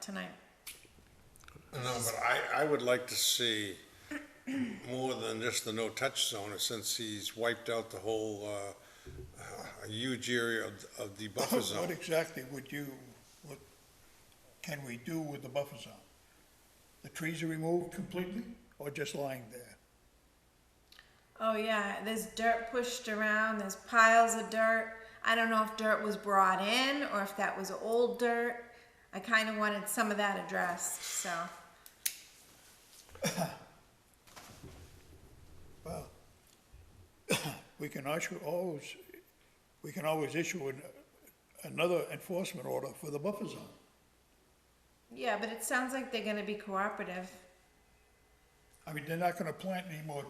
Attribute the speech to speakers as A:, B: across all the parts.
A: tonight.
B: No, but I, I would like to see more than just the no-touch zone, since he's wiped out the whole, uh, uh, huge area of, of the buffer
C: What
B: zone.
C: exactly would you, what can we do with the buffer zone? The trees are removed completely or just lying there?
A: Oh yeah, there's dirt pushed around. There's piles of dirt. I don't know if dirt was brought in or if that was old dirt. I kind of wanted some of that addressed. So
C: Well, we can issue, always, we can always issue an, another enforcement order for the buffer zone.
A: yeah, but it sounds like they're going to be cooperative.
C: I mean, they're not gonna plant any more,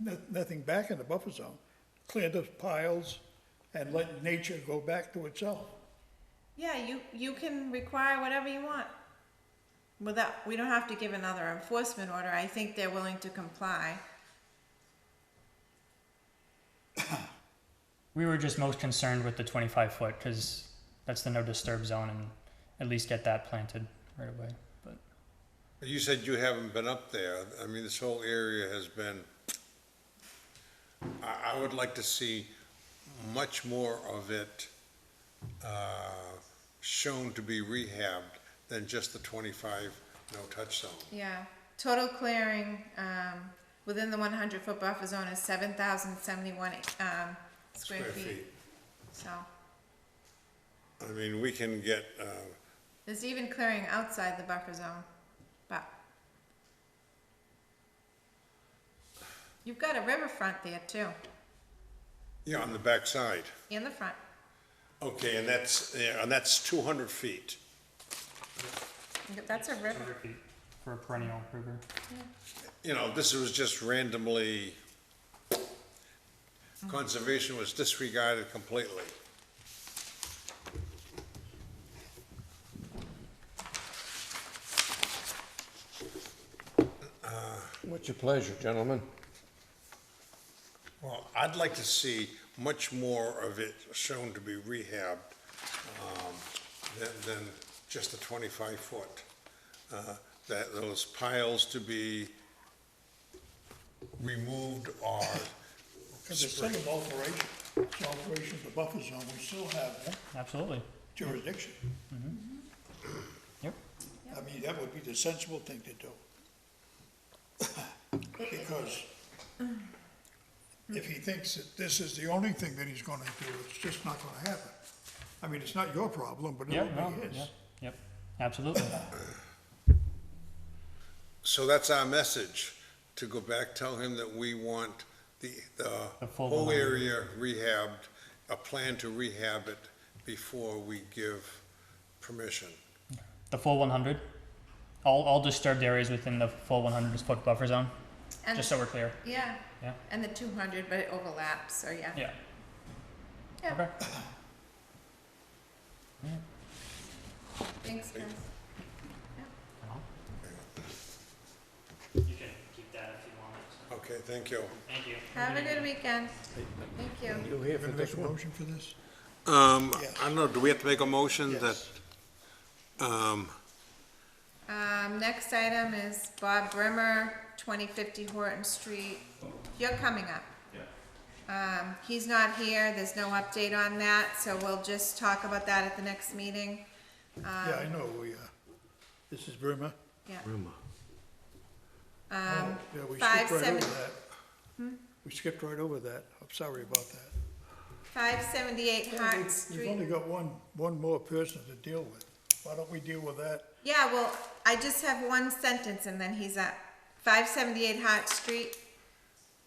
C: no- nothing back in the buffer zone. Clear those piles and let nature go back to itself.
A: Yeah, you you can require whatever you want. Without we don't have to give another enforcement order. I think they're willing to comply.
D: We were just most concerned with the 25 foot because that's the no disturb zone and at least get that planted right away. But
B: You said you haven't been up there, I mean, this whole area has been, I, I would like to see much more of it, uh, shown to be rehabbed than just the twenty-five no-touch zone.
A: Yeah, total clearing, um, within the one hundred foot buffer zone is seven thousand seventy-one, um, square
B: Square
A: feet.
B: feet.
A: So,
B: I mean, we can get, uh,
A: there's even clearing outside the buffer zone, but. You've got a riverfront there too,
B: you know, on the backside.
A: in the front,
B: Okay, and that's, yeah, and that's two hundred feet.
A: that's a river,
D: 100 feet for a perennial river.
B: You know, this was just randomly, conservation was disregarded completely.
E: What's your pleasure, gentlemen?
B: Well, I'd like to see much more of it shown to be rehabbed, um, than, than just the twenty-five foot. Uh, That, those piles to be removed or
C: Because it's still an alteration, it's an alteration of the buffer zone, we still have
D: Absolutely.
C: jurisdiction.
D: Yep.
C: I mean, that would be the sensible thing to do. Because if he thinks that this is the only thing that he's gonna do, it's just not gonna happen. I mean, it's not your problem, but it
D: Yeah,
C: will
D: no,
C: be
D: yeah,
C: his.
D: yep. Absolutely.
B: So that's our message, to go back, tell him that we want the, the
D: The full
B: whole
D: blown.
B: area rehabbed, a plan to rehab it before we give permission.
D: the full 100. All, all disturbed areas within the full 100 foot buffer zone,
A: and,
D: just so we're clear.
A: yeah,
D: Yeah.
A: and the two hundred, but it overlaps, so yeah.
D: Yeah.
A: Yeah.
D: Okay.
A: Thanks, guys.
D: You can keep that if you want.
B: Okay, thank you.
D: Thank you.
A: Have a good weekend, thank you.
E: You here for
C: Gonna make
E: this
C: a
E: one?
C: motion for this?
B: Um,
C: Yes.
B: I don't know, do we have to make a motion that,
C: Yes.
B: um,
A: Um, next item is Bob Brimmer, twenty fifty Horton Street. You're coming up. Yeah. Um, he's not here, there's no update on that, so we'll just talk about that at the next meeting.
C: Yeah, I know, we, uh, this is Burma.
A: Yeah,
C: Um,
A: five seven- Hmm?
C: We skipped right over that, I'm sorry about that.
A: five seventy-eight Hart
C: We've only
A: Street.
C: got one, one more person to deal with. Why don't we deal with that?
A: Yeah, well, I just have one sentence and then he's up. Five seventy-eight Hart Street.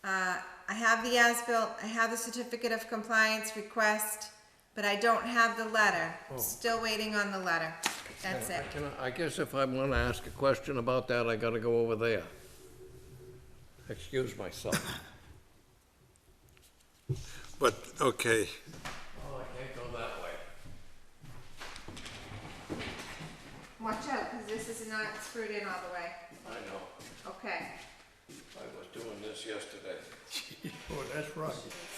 A: Uh, I have the as-built, I have the certificate of compliance request, but I don't have the letter.
C: Oh.
A: Still waiting on the letter. That's it.
E: Can I- I guess if I want to ask a question about that, I gotta go over there. Excuse myself.
B: but, okay,
E: Oh, I can't go that way.
A: Watch out, because this is not screwed in all the way.
E: I know.
A: Okay.
E: I was doing this yesterday.
C: Oh, that's right.